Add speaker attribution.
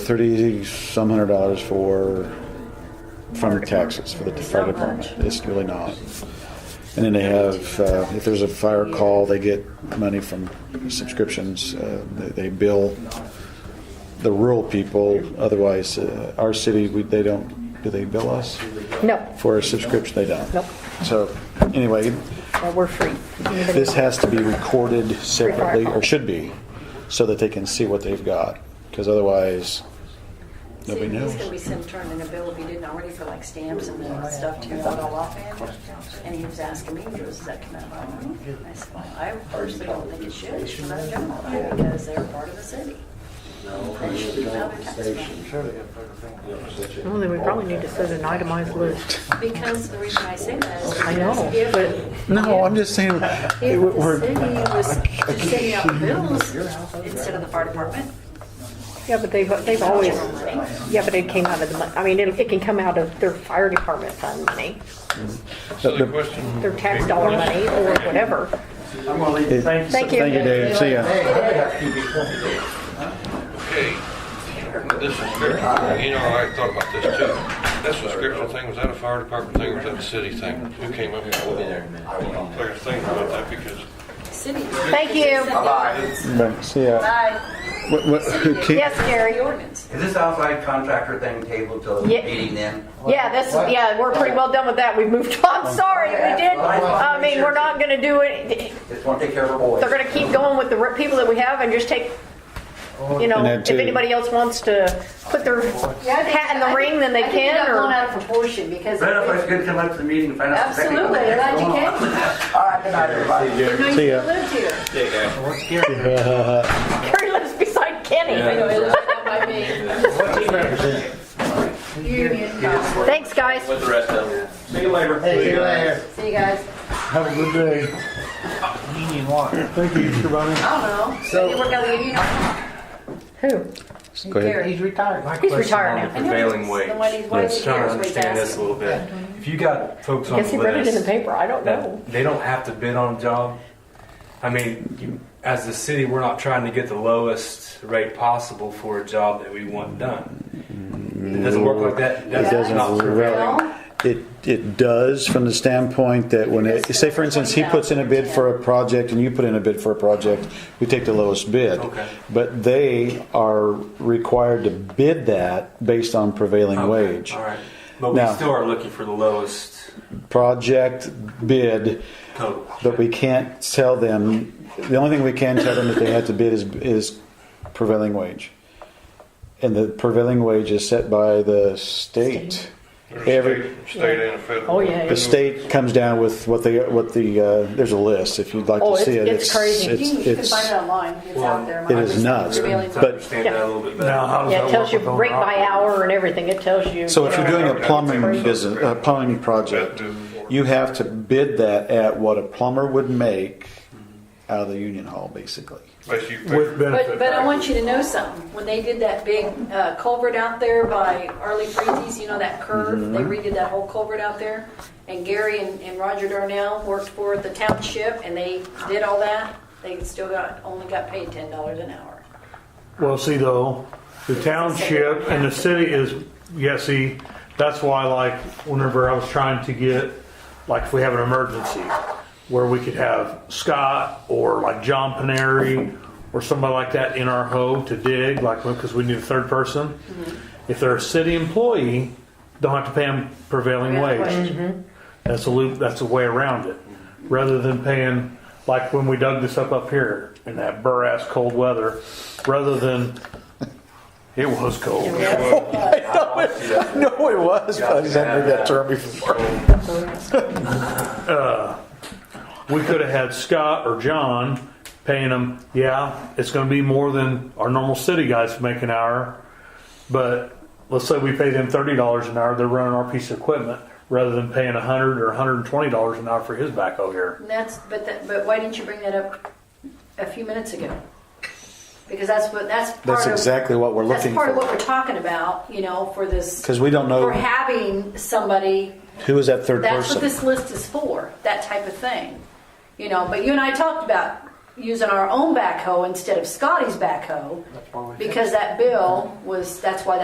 Speaker 1: thirty some hundred dollars for from taxes for the fire department. It's really not. And then they have, uh, if there's a fire call, they get money from subscriptions. Uh, they, they bill the rural people. Otherwise, uh, our city, we, they don't. Do they bill us
Speaker 2: No,
Speaker 1: for a subscription? They don't.
Speaker 2: Nope.
Speaker 1: So anyway,
Speaker 2: no, we're free. Anybody-
Speaker 1: this has to be recorded separately, or should be, so that they can see what they've got, because otherwise, nobody
Speaker 3: See, He's gonna be
Speaker 1: knows.
Speaker 3: sent turning a bill if he didn't already for like stamps and then stuff to fill it all up in. And he was asking me, he goes, does that come out of my money? I said, well, I personally don't think it should, it should not general fund because they're part of the city. They should be out of tax money.
Speaker 2: Well, then we probably need to set an itemized list.
Speaker 3: Because the reason I say that is
Speaker 2: I know,
Speaker 3: because if,
Speaker 2: but-
Speaker 3: if
Speaker 1: No, I'm just saying,
Speaker 3: the city
Speaker 1: we're- we're,
Speaker 3: was sending out bills instead of the fire department,
Speaker 2: Yeah, but they've, they've always,
Speaker 3: general money.
Speaker 2: yeah, but it came out of the, mon- I mean, it it can come out of their fire department fund money,
Speaker 4: So the question.
Speaker 2: their tax dollar money or whatever.
Speaker 5: I'm gonna leave. Thanks.
Speaker 2: Thank you.
Speaker 1: Thank you, David. See ya.
Speaker 4: Okay, this subscription, you know, I thought about this too. That subscription thing, was that a fire department thing or was that a city thing? Who came up with that? I was thinking about that because
Speaker 3: city.
Speaker 2: Thank you.
Speaker 1: right, see ya.
Speaker 3: Bye.
Speaker 1: What, what, who ca-
Speaker 2: Yes, Gary.
Speaker 3: The ordinance.
Speaker 5: Is this outside contractor thing tabled till
Speaker 2: Yeah.
Speaker 5: meeting then?
Speaker 2: Yeah, that's, yeah, we're pretty well done with that. We've moved on. Sorry, we did. I mean, we're not gonna do it,
Speaker 5: Just wanna take care of our boys.
Speaker 2: they're gonna keep going with the re- people that we have and just take, you know,
Speaker 1: And then
Speaker 2: if
Speaker 1: two.
Speaker 2: anybody else wants to put their hat in the ring, then they
Speaker 3: I think it
Speaker 2: can,
Speaker 3: got blown
Speaker 2: or.
Speaker 3: out of proportion because.
Speaker 5: Right up, it's good to come up to the meeting and find out. the technical
Speaker 3: Absolutely, they're
Speaker 5: things going on.
Speaker 3: educated.
Speaker 5: All right, good night, everybody.
Speaker 3: No, you
Speaker 1: See ya.
Speaker 3: lived here.
Speaker 2: Gary lives beside Kenny.
Speaker 3: Union. Cop.
Speaker 2: Thanks, guys.
Speaker 3: See you guys.
Speaker 6: Union water. Thank you, Mr. Bonner.
Speaker 3: I don't know. So you work out of the union.
Speaker 2: Who?
Speaker 1: Go ahead.
Speaker 6: He's retired. My
Speaker 2: He's
Speaker 6: question
Speaker 2: retired
Speaker 6: on
Speaker 2: now.
Speaker 6: the Prevailing
Speaker 3: wage.
Speaker 6: wage.
Speaker 3: The way these wages
Speaker 7: trying
Speaker 3: here
Speaker 7: to
Speaker 3: is what he's
Speaker 7: understand this a
Speaker 3: asking.
Speaker 7: little bit. If you got folks on
Speaker 2: Guess
Speaker 7: the
Speaker 2: he read it in the
Speaker 7: list
Speaker 2: paper. I don't know.
Speaker 7: that they don't have to bid on a job, I mean, you, as the city, we're not trying to get the lowest rate possible for a job that we want done. It doesn't work like that. That's
Speaker 1: It doesn't
Speaker 7: not prevailing.
Speaker 1: really. It, it does from the standpoint that when it, say for instance, he puts in a bid for a project and you put in a bid for a project, we take the lowest bid.
Speaker 7: Okay.
Speaker 1: But they are required to bid that based on prevailing
Speaker 7: Okay,
Speaker 1: wage.
Speaker 7: All right. But we
Speaker 1: Now-
Speaker 7: still are looking for the lowest
Speaker 1: Project bid,
Speaker 7: total.
Speaker 1: but we can't tell them, the only thing we can tell them that they have to bid is, is prevailing wage. And the prevailing wage is set by the state.
Speaker 4: there's
Speaker 1: Every,
Speaker 4: a state, state and a federal.
Speaker 2: Oh, yeah.
Speaker 1: The state comes down with what they, what the, uh, there's a list, if you'd like
Speaker 2: Oh,
Speaker 1: to
Speaker 2: it's-
Speaker 1: see it.
Speaker 2: it's crazy.
Speaker 3: You can- you can find it online. It's out there.
Speaker 1: It is nuts,
Speaker 7: To
Speaker 1: but-
Speaker 7: understand that a little bit better.
Speaker 6: Now, how does
Speaker 2: Yeah,
Speaker 6: that
Speaker 2: it tells you
Speaker 6: work with
Speaker 2: rate
Speaker 6: overall?
Speaker 2: by hour and everything. It tells you.
Speaker 1: So if
Speaker 2: you
Speaker 1: you're
Speaker 2: know.
Speaker 1: doing a plumbing business, a plumbing project, you have to bid that at what a plumber would make out of the union hall, basically.
Speaker 4: Unless you pick-
Speaker 6: With benefit.
Speaker 3: But, but I want you to know something. When they did that big uh, culvert out there by Arlie Freezy's, you know, that curve, they
Speaker 1: Mm-hmm.
Speaker 3: redid that whole culvert out there. And Gary and, and Roger Darnell worked for the township and they did all that. They still got, only got paid $10 an hour.
Speaker 6: Well, see though, the township and the city is, yeah, see, that's why like whenever I was trying to get, like if we have an emergency where we could have Scott or like John Paneri or somebody like that in our hoe to dig, like, because we need a third person. If they're a city employee, don't have to pay them prevailing
Speaker 3: Prevailing
Speaker 6: wage. That's a loop, that's a way around it. Rather than paying, like when we dug this up up here in that burr-ass cold weather, rather than it was cold.
Speaker 1: No, it was, but I just hadn't heard that term before.
Speaker 6: We could have had Scott or John paying them, yeah, it's going to be more than our normal city guys make an hour, but let's say we pay them $30 an hour, they're running our piece of equipment rather than paying 100 or $120 an hour for his backhoe here.
Speaker 3: And that's, but that, but why didn't you bring that up a few minutes ago? Because that's what, that's part of.
Speaker 1: That's exactly what we're
Speaker 3: That's
Speaker 1: looking
Speaker 3: part of what
Speaker 1: for.
Speaker 3: we're talking about, you know, for this.
Speaker 1: Because we don't
Speaker 3: For
Speaker 1: know
Speaker 3: having somebody
Speaker 1: who is that third
Speaker 3: That's what
Speaker 1: person.
Speaker 3: this list is for, that type of thing. You know, but you and I talked about, using our own backhoe instead of Scotty's backhoe because that bill was, that's why that